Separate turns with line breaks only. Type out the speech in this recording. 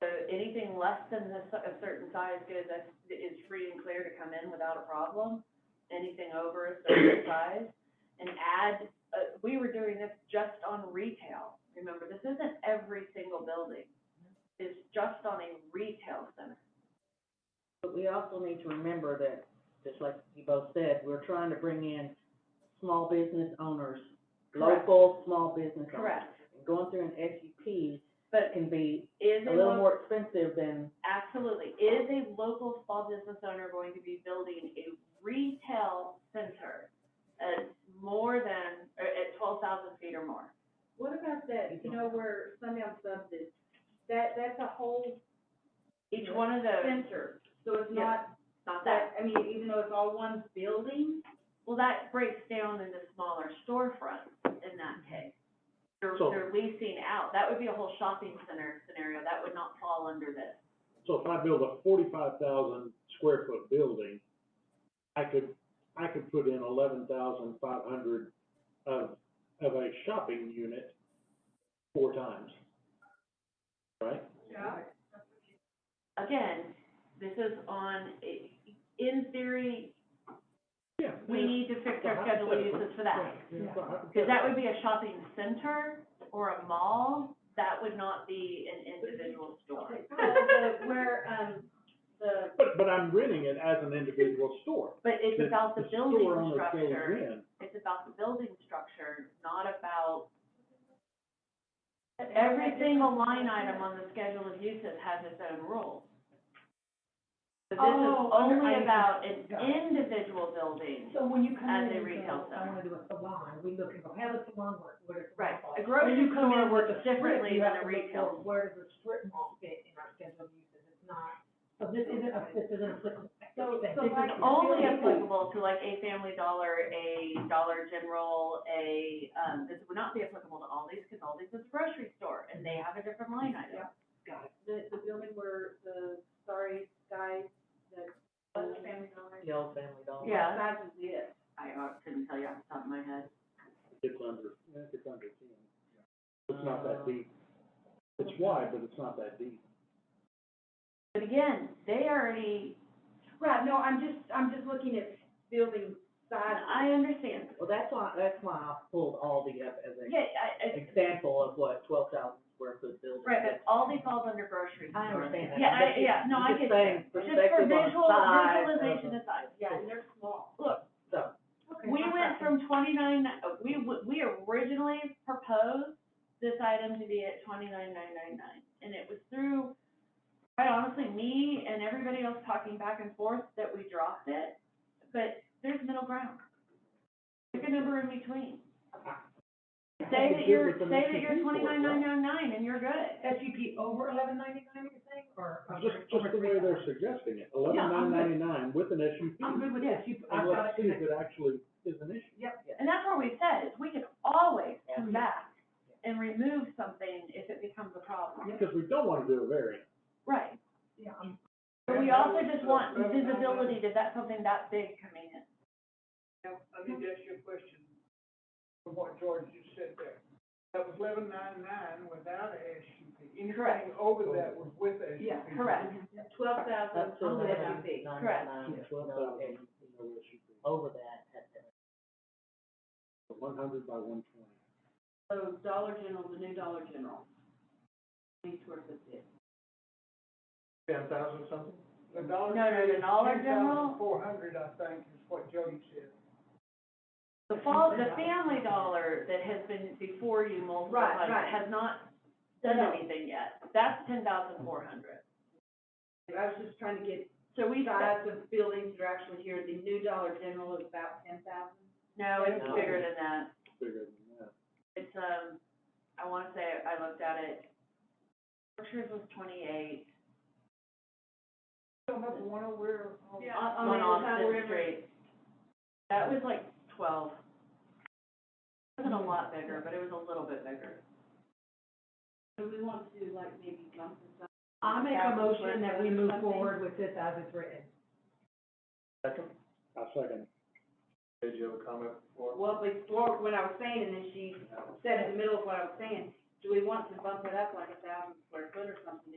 So anything less than this, a certain size good, that is free and clear to come in without a problem. Anything over a certain size, and add, uh, we were doing this just on retail. Remember, this isn't every single building. It's just on a retail center.
But we also need to remember that, just like you both said, we're trying to bring in small business owners,
Correct.
local small business owners.
Correct,
Going through an SUP
but
can be
is
a
a
little
local,
more expensive than,
absolutely, is a local small business owner going to be building a retail center at more than, or at twelve thousand feet or more?
What about that, you know, where Sundown Subs is, that, that's a whole
Each one of those,
center, so it's
Yeah.
not
not that
that, I mean, even though it's all one building,
Well, that breaks down into smaller storefronts in that case. They're,
So-
they're leasing out, that would be a whole shopping center scenario, that would not fall under this.
So if I build a forty-five thousand square foot building, I could, I could put in eleven thousand five hundred of, of a shopping unit four times. Right?
Again, this is on, a- in theory,
Yeah.
we need to fix our schedule of uses for that. Because that would be a shopping center or a mall, that would not be an individual store.
So the- where, um, the,
But, but I'm renting it as an individual store.
But it's
The-
about the building
store owner goes
structure.
in.
It's about the building structure, not about, every single line item on the schedule of uses has its own rules. So this is
Oh, under-
only
I-
about an
got it.
individual building,
So when you come
As
in
a
and you
retail
go, I wanna do a salon, we look and go, how does salon work, where does salon
right?
fall?
A
When
grocery
you come
store
in with
works
a strip,
differently
you
than
have
a
to look for
retail.
Where does the strip mall fit in our schedule of uses, it's not, so this isn't, a- this isn't applicable.
So-
This
so
is
like-
It's
Oh,
Only
Really?
applicable to like a Family Dollar, a Dollar General, a, um, this would not be applicable to Aldi's, because Aldi's is a grocery store, and they have a different line item.
the, the building where the sorry guys, the, the family dollar.
the old family dollar.
Yeah.
That is it.
I uh, couldn't tell you off the top of my head.
It's under, it's under ten. It's not that deep. It's wide, but it's not that deep.
But again, they already,
Right, no, I'm just, I'm just looking at building size.
I understand.
Well, that's why, that's why I pulled Aldi up as
Yeah,
an
I, I,
example of what twelve thousand square foot building.
right, but all these falls under grocery.
I understand that.
Yeah,
I'm
I,
just-
yeah, no,
I'm
I
just
get
saying
that. Just for
perspective on
visual,
size of
visualization
it.
aside.
Yeah, and they're small.
Look,
So,
Okay,
we
I'm
went
sorry.
from twenty-nine, uh, we, w- we originally proposed this item to be at twenty-nine nine nine nine. And it was through, quite honestly, me and everybody else talking back and forth that we dropped it. But there's middle ground. Pick a number in between. Say that you're, say that you're twenty-nine nine nine nine and you're good.
SUP over eleven ninety-nine, you're saying, or? over-
Just, just
over
the way they're
3,000?
suggesting it,
I'm
eleven
good.
nine ninety-nine with an
I'm
SUP.
good with
Yeah.
SUP, I've got
And let's
it
see if
connected.
it actually is an issue.
And that's where we said, is we can always come
Yeah.
back and remove something if it becomes a problem.
Because we don't wanna do a variance.
Right.
Yeah, I'm.
But we also just want visibility, that that's something that big coming in.
I need to ask you a question from what George just said there. That was eleven nine nine without a SUP.
Correct.
Anything over that was with a SUP.
Yeah,
Correct.
Twelve thousand.
Up to
on the
eleven
SUV.
nine
Correct.
nine,
Twelve
no, and
thousand, no SUP.
over that, had to-
One hundred by one twenty.
So Dollar General, the new Dollar General. These were the,
Ten thousand something? The
No,
Dollar.
no, the Dollar General-
Four hundred, I think, is what Jody said.
The fall, the family dollar that has been before you multiple
Right,
times
right.
has not done
No.
anything yet. That's ten thousand four hundred.
I was just trying to get
So we,
size of buildings that are actually here, the new Dollar General is about ten thousand.
no, it's
No.
bigger than that.
bigger than that.
It's, um, I wanna say, I looked at it, Berkshire's was twenty-eight
Don't have the one over there.
Yeah.
on,
Oh,
on
on
the other side of the
Austin
river.
Street. That was like twelve. It Wasn't a lot bigger, but it was a little bit bigger.
So we want to like maybe bump this up.
I make a motion that we move forward with this as it's written.
Second.
I second.
Did you have a comment before?
Well, before, what I was saying, and then she said in the middle of what I was saying, do we want to bump it up like a thousand square foot or something?